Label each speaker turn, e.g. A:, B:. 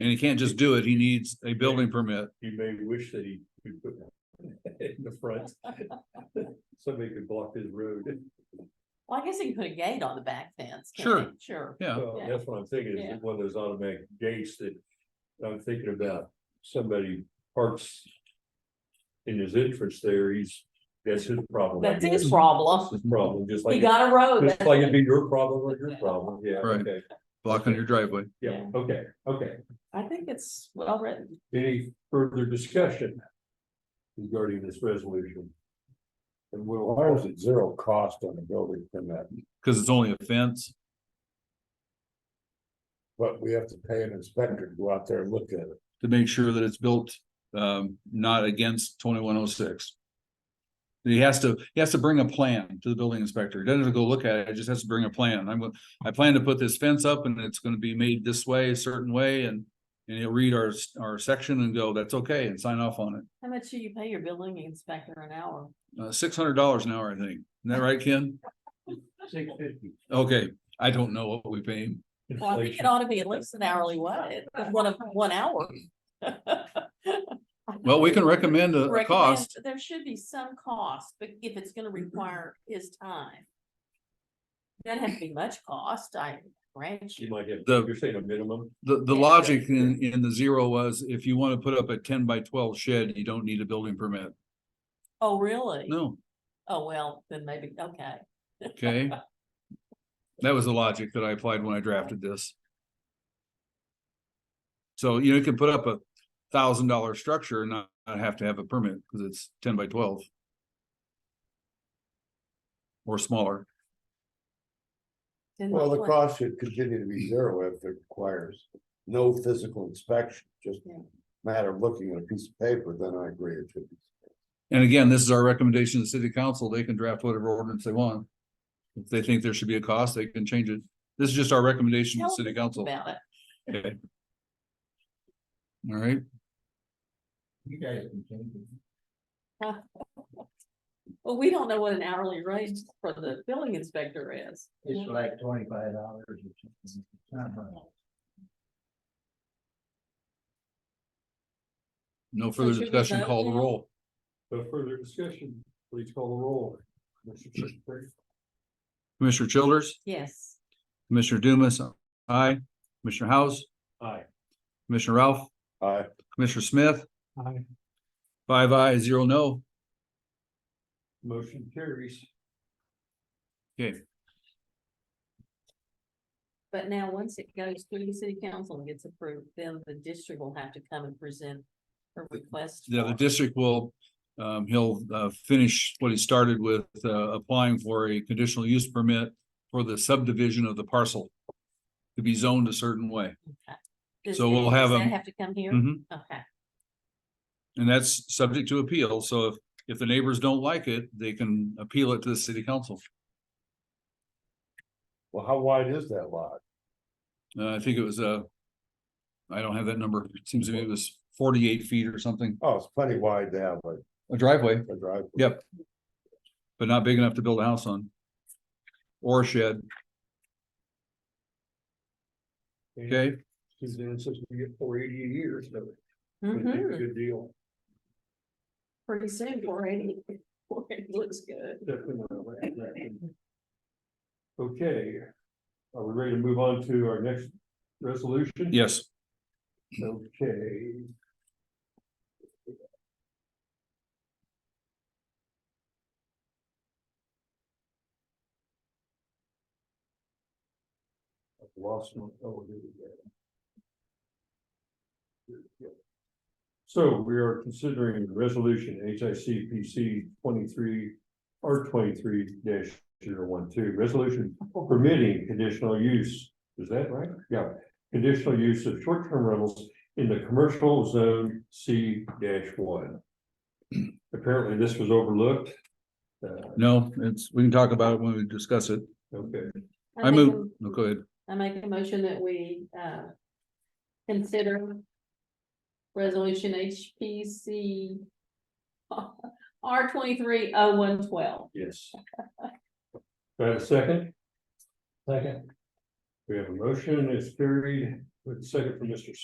A: And he can't just do it. He needs a building permit.
B: He may wish that he could put one in the front. Somebody could block his road.
C: Well, I guess you can put a gate on the back fence. can't
A: Sure.
C: you? Sure.
A: Yeah.
B: Well,
C: Yeah.
B: That's what I'm thinking,
C: Yeah.
B: is one of those automatic gates that I'm thinking about, somebody parks. In his entrance there, he's, that's his problem. I
C: That's his
B: guess.
C: problem.
B: His problem, just
C: He
B: like,
C: got a road.
B: just
C: that's
B: like
C: it.
B: it'd be your problem or your problem, yeah,
A: Right.
B: okay,
A: Block on your driveway.
B: yeah,
C: Yeah.
B: okay, okay.
C: I think it's well written.
B: Any further discussion? Regarding this resolution? And we'll.
D: Why is it zero cost on the building permit,
A: Cause it's only a fence.
D: but we have to pay an inspector to go out there and look at it?
A: to make sure that it's built um not against twenty-one oh six. He has to, he has to bring a plan to the building inspector. He doesn't have to go look at it. He just has to bring a plan. I'm, gonna- I plan to put this fence up and it's gonna be made this way, a certain way and. And he'll read our, our section and go, that's okay, and sign off on it.
C: How much do you pay your building inspector an hour?
A: Uh, six hundred dollars an hour, I think. Isn't that right, Ken?
B: Six fifty.
A: Okay, I don't know what we pay him.
C: Well, I think it ought to be at least an hourly wage, one of, one hour.
A: Well, we can recommend a- a
C: Recommend-
A: cost.
C: There should be some cost, but if it's gonna
D: Mm-hmm.
C: require his time. Doesn't have to be much cost, I grant
B: You
C: you.
B: might have,
A: The-
B: you're saying a minimum,
A: The, the
C: Yeah.
A: logic in, in the zero was if you wanna put up a ten by twelve shed, you don't need a building permit.
C: Oh, really?
A: No.
C: Oh, well, then maybe, okay.
A: Okay. That was the logic that I applied when I drafted this. So you know, you can put up a thousand dollar structure and not, not have to have a permit because it's ten by twelve. Or smaller.
C: Then
D: Well, the
C: what-
D: cost should continue to be zero if it requires no physical inspection, just
C: Yeah.
D: matter of looking at a piece of paper, then I agree it should be.
A: And again, this is our recommendation to the city council. They can draft whatever ordinance they want. If they think there should be a cost, they can change it. This is just our recommendation to
C: Tell
A: the
C: us
A: city council.
C: About it.
A: Okay. All right,
B: you guys can change it.
C: Well, we don't know what an hourly rate for the building inspector is.
E: It's like twenty-five dollars or something. It's not much.
A: no
C: So
A: further
C: should we
A: discussion,
C: vote
A: call the
C: now?
A: roll.
B: No further discussion, please call the roll. Mr. Chittick.
A: Commissioner Childers?
C: Yes.
A: Commissioner Dumas, aye. Commissioner House,
B: Aye.
A: Commissioner Ralph,
D: I,
A: Commissioner Smith,
B: Aye.
A: five aye, zero no.
B: Motion carries.
C: But now, once it goes through the city council and gets approved, then the district will have to come and present a request.
A: The, the
C: for-
A: district will, um, he'll, uh, finish what he started with, uh, applying for a conditional use permit for the subdivision of the parcel to be zoned a certain way.
C: Does
A: so
C: it-
A: we'll
C: does
A: have
C: that
A: them-
C: Have to come here?
A: Mhm.
C: Okay,
A: And that's subject to appeal. So if, if the neighbors don't like it, they can appeal it to the city council.
D: well, how wide is that lot?
A: Uh, I think it was, uh, I don't have that number. It seems to me it was forty-eight feet or something,
D: Oh, it's plenty wide to have a,
A: a driveway.
D: a driveway.
A: Yep. but not big enough to build a house on. Or a shed, okay?
B: Suzanne says we get four eighty a year, so it's a
C: Mhm.
B: good deal.
C: pretty soon, four eighty, four eighty looks good.
B: Okay, are we ready to move on to our next resolution?
A: Yes,
B: Okay. I've Lost my, oh, here we go. Here we go. So we are considering resolution H I C P C twenty-three or twenty-three 12 resolution permitting conditional use. Is that right? Yeah conditional use of short-term rentals in the commercial zone C one. Apparently, this was overlooked. Uh,
A: no, it's, we can talk about it when we discuss it.
B: okay,
A: I
C: make
A: move, no, go ahead.
C: a- I make a motion that we, uh, consider resolution HPC R twenty-three oh one twelve.
B: yes. Do I have a second?
E: Second.
B: We have a motion, it's carried, with a second from Mr.